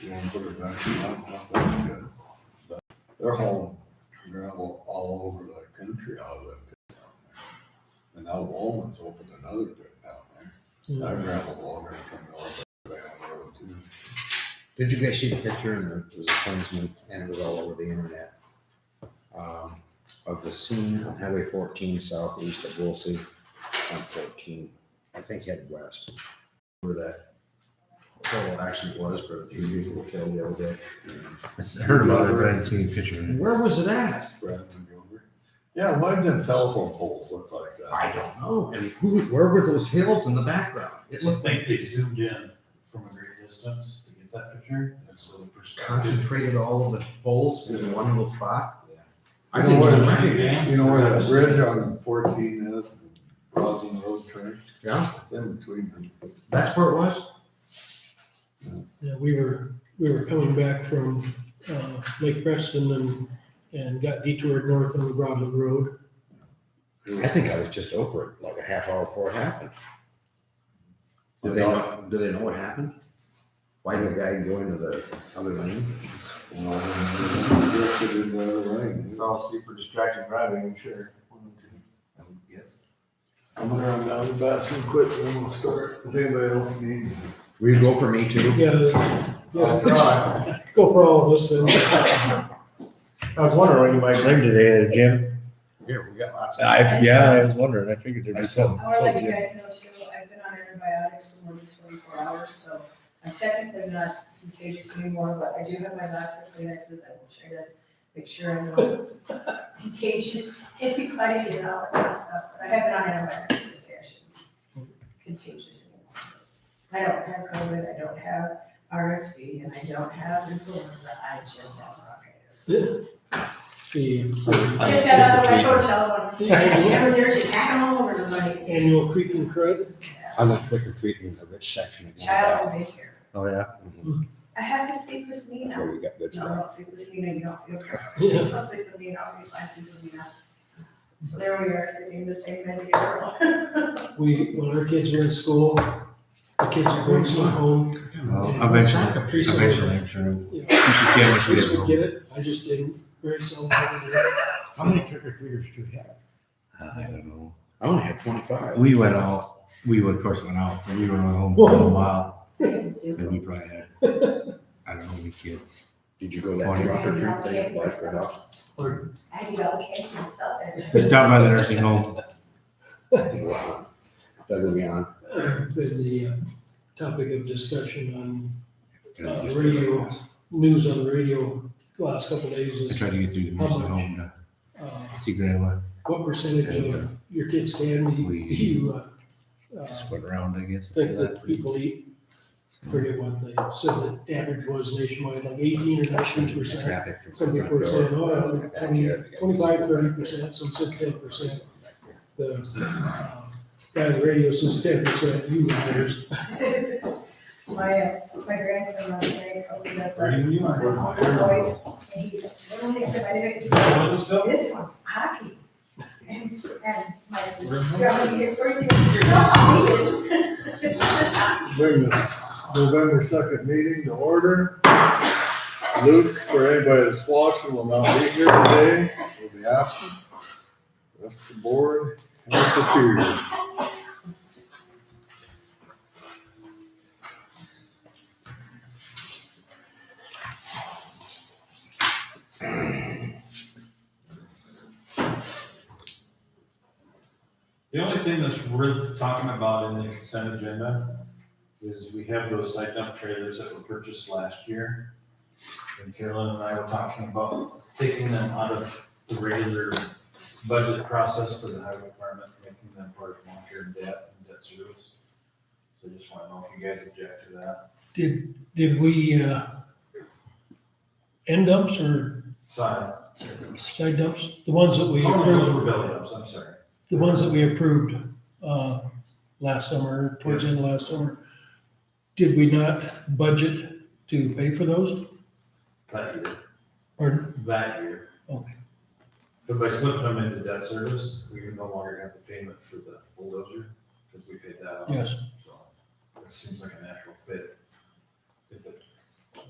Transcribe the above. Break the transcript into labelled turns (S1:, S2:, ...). S1: You wanna put it back, I don't know if that's good, but they're hauling gravel all over the country out of that pit down there. And now Walmart's opened another pit down there,
S2: Hmm.
S1: that gravel's already coming off that damn road too.
S2: Did you guys see the picture in the, it was a Kingsman and it was all over the internet? Um, of the scene on Highway fourteen southeast of Woolsey, on fourteen, I think head west. Where that horrible accident was, where the three people were killed the other day.
S3: I heard about it, but I didn't see any picture of it.
S4: Where was it at?
S1: Bradman Gilbert. Yeah, why didn't telephone poles look like that?
S4: I don't know. And who, where were those hills in the background? It
S5: I
S4: looked like
S5: think they zoomed in from a great distance to get that picture, and so the perspective.
S4: concentrated all of the holes in one little spot.
S5: Yeah.
S4: I
S1: You know
S4: didn't
S1: where
S4: even
S1: the-
S4: recognize.
S1: You know where that bridge on fourteen is, Roslyn Road Train,
S4: Yeah,
S1: it's in between them.
S4: that's where it was.
S6: Yeah, Uh, we were, we were coming back from, uh, Lake Preston and, and got detoured north on the Broadland Road.
S2: I think I was just over it like a half hour before it happened. Do
S1: I
S2: they
S1: thought-
S2: know, do they know what happened? Why did the guy go into the other lane?
S1: Well, I drifted in the other lane.
S3: all super distracted driving, I'm sure. Yes.
S1: I'm gonna run down to the bathroom quick and then we'll start. Does anybody else need?
S2: Will you go for me too?
S6: Yeah, yeah, go for all of us then.
S3: I was wondering what you might bring today at the gym.
S2: Here, we got lots
S3: I, yeah, I was wondering. I figured there'd be something.
S7: I wanna let you guys know too, I've been on antibiotics for more than twenty-four hours, so I'm technically not contagious anymore, but I do have my last Kleenexes, I will try to make sure I'm not contagious, anybody, and all that stuff, but I have been on antibiotics, so I shouldn't be contagious anymore. I don't have COVID, I don't have RSV, and I don't have influenza, I just have bronchitis.
S6: The
S7: Get that out of my hotel room, I had cameras there, she's hacking all over everybody,
S6: annual creeping crud,
S2: I went click or treat in the rich section again.
S7: child in daycare.
S3: Oh, yeah.
S7: I have to sleep with me
S2: Before
S7: now.
S2: we got good
S7: No, I
S2: stuff.
S7: don't sleep with Nina, you don't feel correct.
S6: Yeah.
S7: I'll sleep with Nina, I'll be fine sleeping with Nina. So there we are, sleeping in the same bed together.
S6: we, when our kids were in school, the kids were going to home,
S3: Well, eventually,
S6: Soccer piece of-
S3: eventually, I'm sure. You
S6: you know,
S3: should see how much you
S6: kids would get
S3: get.
S6: it, I just didn't, very seldom. I would do it.
S2: How many trick or treaters do you have?
S3: I don't know.
S2: I only had twenty-five.
S3: We went out. We would, of course, went out. So we were home for a little while,
S7: And Sue.
S3: and we probably had I don't know how many kids.
S2: Did you go that
S3: Twenty.
S2: trick or treat thing at Black Rock?
S7: I eat all cake myself and.
S3: We stopped by the nursing home.
S2: Wow. uh, Doug and Leon.
S6: Uh, Been the uh, topic of discussion on
S2: Can I
S6: Uh,
S2: just-
S6: radio. news on the radio the last couple days
S3: I
S6: is,
S3: tried to get through the nursing home to
S6: uh,
S3: see grandma.
S6: what percentage of your kids can be,
S3: We-
S6: you, uh, uh,
S3: Just went around, I guess.
S6: think that people eat, forget what they said the average was nationwide, like eighteen or nineteen percent.
S2: Traffic from
S6: Some
S2: the
S6: people were
S2: front door.
S6: saying, oh,
S2: Back
S6: twenty,
S2: here, they got
S6: twenty-five,
S2: these-
S6: thirty percent, some said ten percent. The um, guy on the radio says ten percent, you liars.
S7: My, uh, my grandson last night opened up.
S5: Where do you want to go?
S7: Boy, and he, what was he said, I didn't, he goes, this one's hockey. And, and my sister, you're gonna be here for you. No, I'll eat it. It's just hockey.
S1: Bring this November second meeting to order. Luke, for anybody that's watching, will not be here today, will be absent. Rest of the board, and Superior.
S5: The only thing that's worth talking about in the consent agenda is we have those site dump trailers that were purchased last year. And Carolyn and I were talking about taking them out of the regular budget process for the highway department, making them part of long-term debt and debt service. So just want to know if you guys object to that.
S6: Did, did we, uh, end dumps or
S5: Side,
S6: side dumps? The ones that we
S5: oh, no,
S6: approved,
S5: those were belly dumps, I'm sorry.
S6: the ones that we approved, uh, last summer, towards the end of last summer. Did we not budget to pay for those?
S5: That year,
S6: Or
S5: that year.
S6: Okay.
S5: But by slipping them into debt service, we no longer have the payment for the bulldozer, because we paid that off.
S6: Yes.
S5: So, it seems like a natural fit. If it